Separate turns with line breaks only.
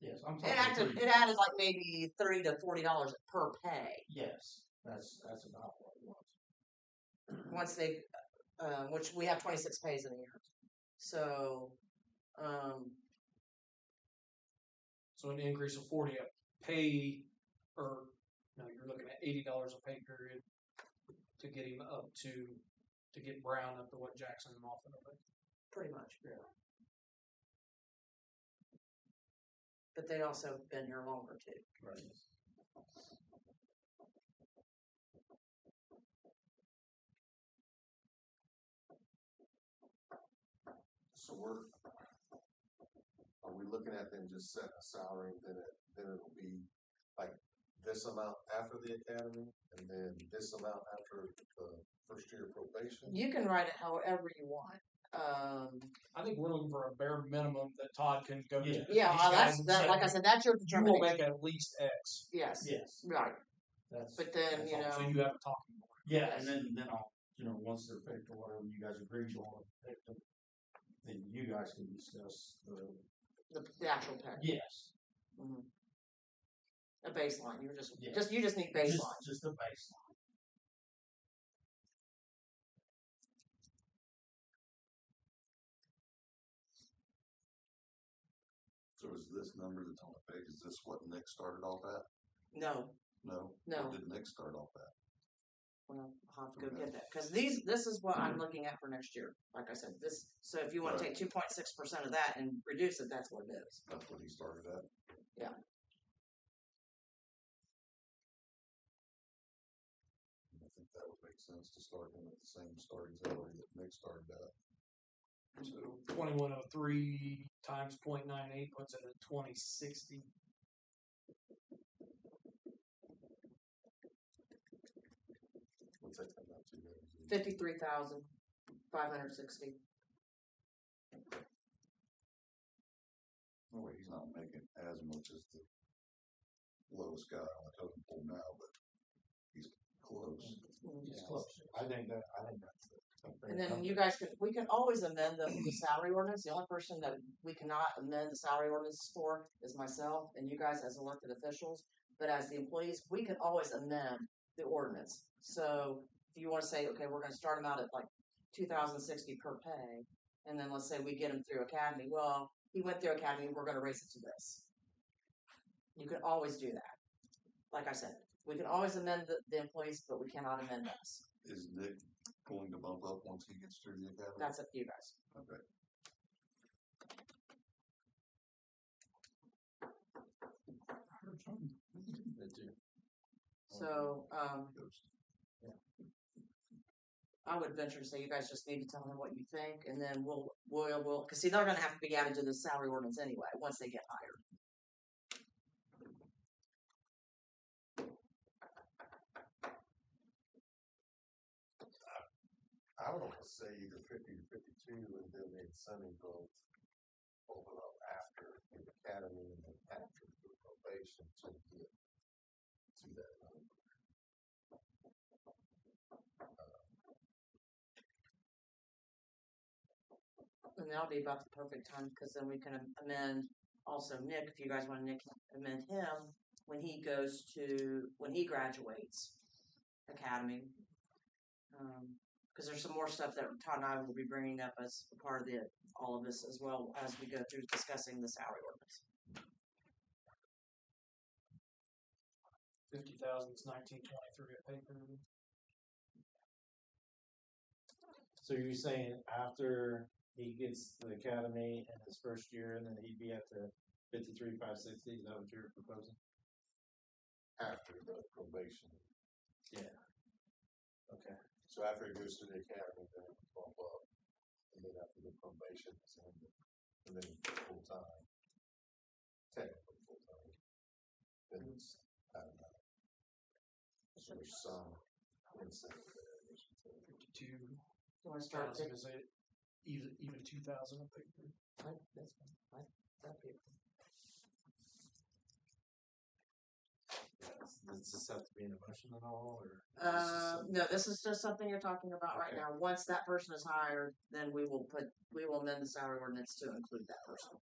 Yes, I'm
Um, It
talking
acted,
three.
it added like maybe thirty to forty dollars per pay
Yes, that's, that's about what it was.
once they, um, which we have twenty six pays in a year. So, um,
So an increase of forty a pay, or no, you're looking at eighty dollars a pay period to get him up to to get Brown up to what Jackson and Moffitt are. making.
pretty much. Yeah. But they also have been here longer too.
Right.
So we're, are we looking at then just set a salary and then it, then it'll be like this amount after the academy and then this amount after the first year probation?
You can write it however you want. Um,
I think we're looking for a bare minimum that Todd can go
Yeah.
to.
yeah,
These
well, that's,
guys
that,
say,
like I said, that's your
You will
determination.
make at least X.
Yes,
Yes,
right.
that's.
But then,
that's
you
all.
know-
So you have a talking point.
Yeah, and then, then I'll, you know, once they're picked or whatever you guys agree on, pick them, then you guys can discuss the,
The, the actual pay.
yes,
Mhm. A baseline. You're just,
Yeah.
just, you just need
just,
baseline.
just the baseline.
So is this number that's on the page, is this what Nick started off at?
No,
No?
No.
What did Nick start off at?
well, I'll have to go get that, cause these, this is what I'm looking at for next year, like I said, this, so if you wanna
Right.
take two point six percent of that and reduce it, that's what it is.
That's what he started at?
Yeah.
I think that would make sense to start him at the same starting salary that Nick started at.
So twenty-one oh three times point nine eight puts it at twenty sixty.
What's that come out to? Ramsey?
Fifty-three thousand, five hundred sixty,
No way, he's not making as much as the lowest guy on the totem pole now, but he's close.
It's close. I think that, I think that's. a- a fair
and then
number.
you guys could, we can always amend the, the salary ordinance, the only person that we cannot amend the salary ordinance for is myself and you guys as elected officials, but as the employees, we can always amend the ordinance, so if you wanna say, okay, we're gonna start them out at like two thousand sixty per pay, and then let's say we get him through academy, well, he went through academy, we're gonna raise it to this. You can always do that. Like I said, we can always amend the, the employees, but we cannot amend us.
Is Nick going to bump up once he gets through the academy?
That's up to you guys.
Okay.
So, um,
Goes-
I would venture to say you guys just need to tell him what you think and then we'll, we'll, we'll, cause see, they're gonna have to be added to the salary ordinance anyway, once they get hired.
I would almost say either fifty to fifty-two and then the incentive will open up after the academy and then after the probation to get to that number.
And that'll be about the perfect time, cause then we can amend also Nick, if you guys wanna Nick, amend him when he goes to, when he graduates academy. Um, cause there's some more stuff that Todd and I will be bringing up as a part of the, all of this as well as we go through discussing the salary ordinance.
Fifty thousand is nineteen twenty-three a pay period.
So you're saying after he gets to the academy in his first year, and then he'd be at the fifty-three, five sixty, is that what you're proposing?
After the probation.
Okay.
So after it goes to the academy, then it will bump up. And then after the probation is ended, and then full time. Technically full time. Then it's, I don't know. So there's some incentive there. I guess you could say.
Fifty-two
You wanna start, Dick?
thousand is it even even two thousand a pay period.
I, that's fine. I, that'd be,
Does this have to be an emotion at all, or? is this
Uh,
something-
no, this is just something you're talking about right
Okay.
now. Once that person is hired, then we will put, we will amend the salary ordinance to include that person.